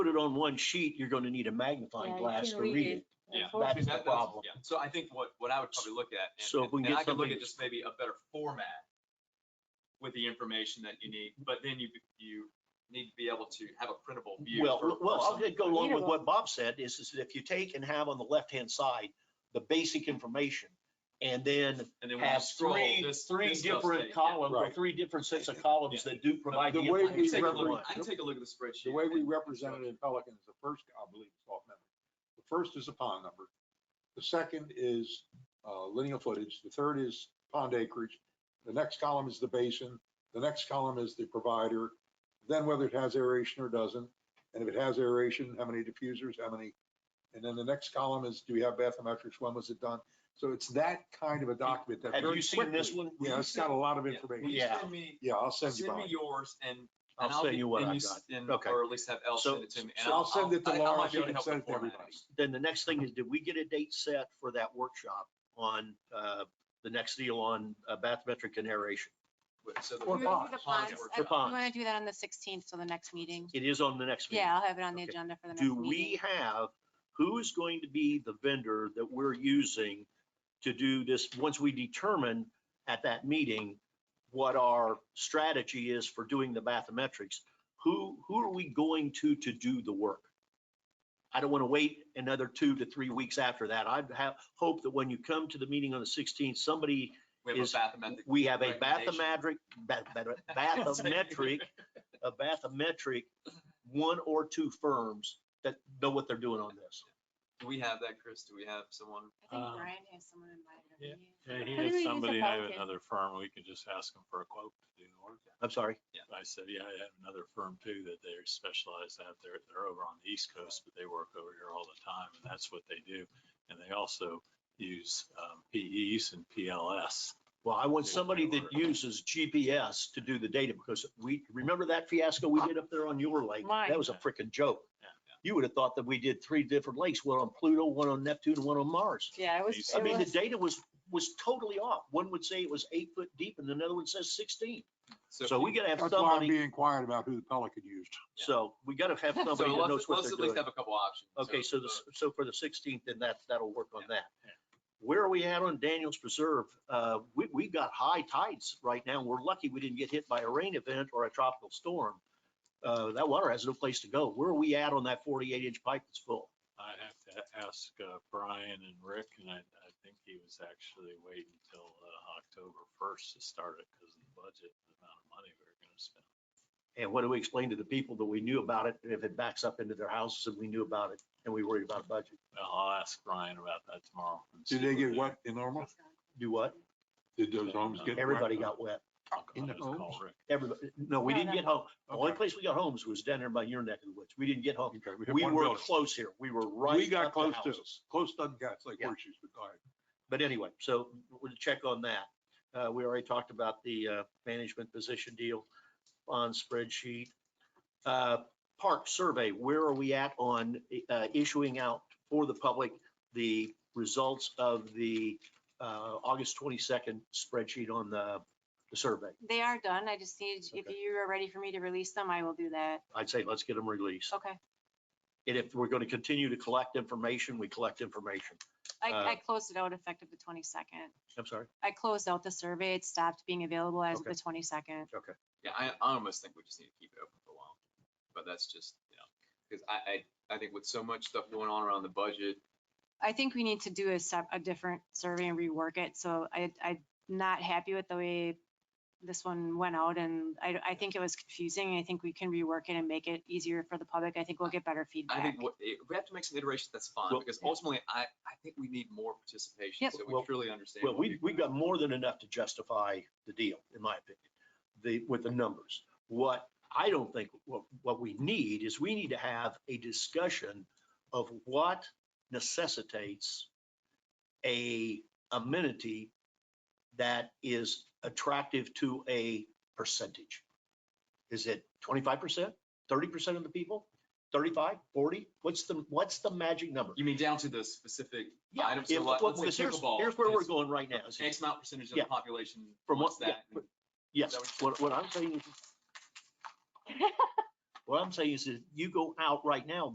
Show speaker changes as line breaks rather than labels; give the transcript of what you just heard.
put it on one sheet, you're going to need a magnifying
Yeah, you
glass
can
to read it.
Yeah.
That's
Unfortunately,
the
That-
problem.
yeah. So I think what, what I would probably look at, and-
So if we
and
can
and I
get
could look
something-
at just maybe a better format with the information that you need, but then you, you need to be able to have a printable view.
Well,
for-
l-
for
well, I'll
someone.
just go along with what Bob said, is, is if you take and have on the left-hand side, the basic information, and then
And then when you
have
scroll,
three,
this,
three
this stuff
different
stays, yeah.
columns, or
Right.
three different sets of columns that do provide the
The way
I can
we
take a
information.
represent-
look- I can take a look at the spreadsheet.
The way we
and-
represented in Pelican is the first, I believe, it's off memory. The first is the pond number. The second is uh, linear footage. The third is pond acreage. The next column is the basin. The next column is the provider. Then whether it has aeration or doesn't. And if it has aeration, how many diffusers, how many? And then the next column is, do we have bathymetrics? When was it done? So it's that kind of a document that.
Have
very
you seen this
quickly-
one?
Yeah, it's got a lot of
Yeah. Will
information.
you
Yeah.
send me-
Yeah, I'll send you
Send me
mine.
yours and. and
I'll send
get-
you what
and
I
s-
got.
and-
Okay.
Or at least have Elle
So-
send it to me. and
So I'll send it to
I- I might
Laura.
be
She
able
can
help
send
with
it to everybody.
formatting.
Then the next thing is, did we get a date set for that workshop on, uh, the next deal on uh, bathymetric and aeration?
But- So. the-
Or
We would do the
Ponds
ponds.
workshop.
For
I'm
ponds,
gonna do that on the sixteenth, so the next meeting.
it is on the next meeting.
Yeah, I'll have it on the
Okay.
agenda for the next
do
meeting.
we have, who is going to be the vendor that we're using to do this, once we determine at that meeting what our strategy is for doing the bathymetrics? Who, who are we going to, to do the work? I don't want to wait another two to three weeks after that. I'd have, hope that when you come to the meeting on the 16th, somebody,
We have a
is-
bathymetric.
we have a bathymetric,
Recommendation.
ba- ba- bathymetric a bathymetric, one or two firms that know what they're doing on this.
Do we have that, Chris? Do we have someone?
I think
uh,
Um,
Brian has someone invited.
yeah. Yeah,
Who
he
do we use at
had somebody, I have
Pelican?
another firm, we could just ask them for a quote to do the work.
I'm sorry.
I said, yeah, I have another firm too that they're specialized out there, they're over on the East Coast, but they work over here all the time, and that's what they do. And they also use um, PEs and PLS.
Well, I want somebody that uses GPS to do the data because we, remember that fiasco we did up there on your lake? That was a freaking joke.
Yeah, yeah.
You would have thought that we did three different lakes, one on Pluto, one on Neptune, and one on Mars.
Yeah, it was,
These-
it
I mean, the
was,
data was, was totally off. One would say it was eight foot deep and another one says 16. So we gotta have
That's why I'm
somebody,
being quiet about who the Pelican used.
so we gotta have somebody
So
that knows
let's-
what
let's
they're
at least
doing.
Have a couple options. uh,
Okay, so the, so for the sixteenth, then that, that'll work on that.
yeah.
Where are we at on Daniels Preserve? Uh, we, we've got high tides right now. We're lucky we didn't get hit by a rain event or a tropical storm. Uh, that water has no place to go. Where are we at on that forty-eight inch pipe that's full?
I have to ask uh, Brian and Rick, and I, I think he was actually waiting until uh, October first to start it because of the budget, the amount of money we were gonna spend.
And what do we explain to the people that we knew about it, if it backs up into their houses and we knew about it and we worried about budget?
Well, I'll ask Brian about that tomorrow. and see
Did they get
the-
wet in Normal?
Do what?
Did those homes get? wet?
Everybody got wet.
I'll
in the
just call
homes?
Rick.
Everybody, no, we
No,
didn't
no.
get home. The only
Okay.
place we got homes was down there by your neck of the woods. We didn't get home.
Okay, we hit
We
one
were
village.
close here. We were right.
We got
up to
close to,
houses.
close doesn't get, it's like
Yeah.
horseshoes, but all right.
But anyway, so we'll check on that. Uh, we already talked about the, uh, management position deal on spreadsheet. Uh, park survey, where are we at on, uh, issuing out for the public the results of the, uh, August twenty-second spreadsheet on the, the survey?
they are done. I just need, if
Okay.
you are ready for me to release them, I will do that.
I'd say let's get them released.
Okay.
And if we're going to continue to collect information, we collect information.
I,
Uh,
I closed it out effective the twenty-second.
I'm sorry.
I closed out the survey. It stopped being available as of
Okay.
the twenty-second.
Yeah, I, I almost think we just need to keep it open for a while, but that's just, you know, because I, I, I think with so much stuff going on around the budget,
I think we need to do a sep, a different survey and rework it. So I, I'm not happy with the way this one went out and I, I think it was confusing. I think we can rework it and make it easier for the public. I think we'll get better
I
feedback.
think what, if we have to make some iterations, that's fine,
Well-
because ultimately, I, I think we need more participation,
Yep.
so
Well-
we truly understand.
Well,
what
we,
people
we've got more than enough to justify the deal, in my opinion, the, with the numbers. What I don't think, what, what we need is we need to have a discussion of what necessitates a amenity that is attractive to a percentage. Is it twenty-five percent, thirty percent of the people, 35, 40? What's the, what's the magic number?
You mean down to the specific
Yeah,
items,
if-
so like,
well,
let's say
because here's-
pickleball
Here's where we're
is
going right now. is
X amount percentage of
Yeah.
the population
From what-
wants
yeah,
that? and-
Yes,
Is that
what, what I'm saying, What I'm saying is that you go out right now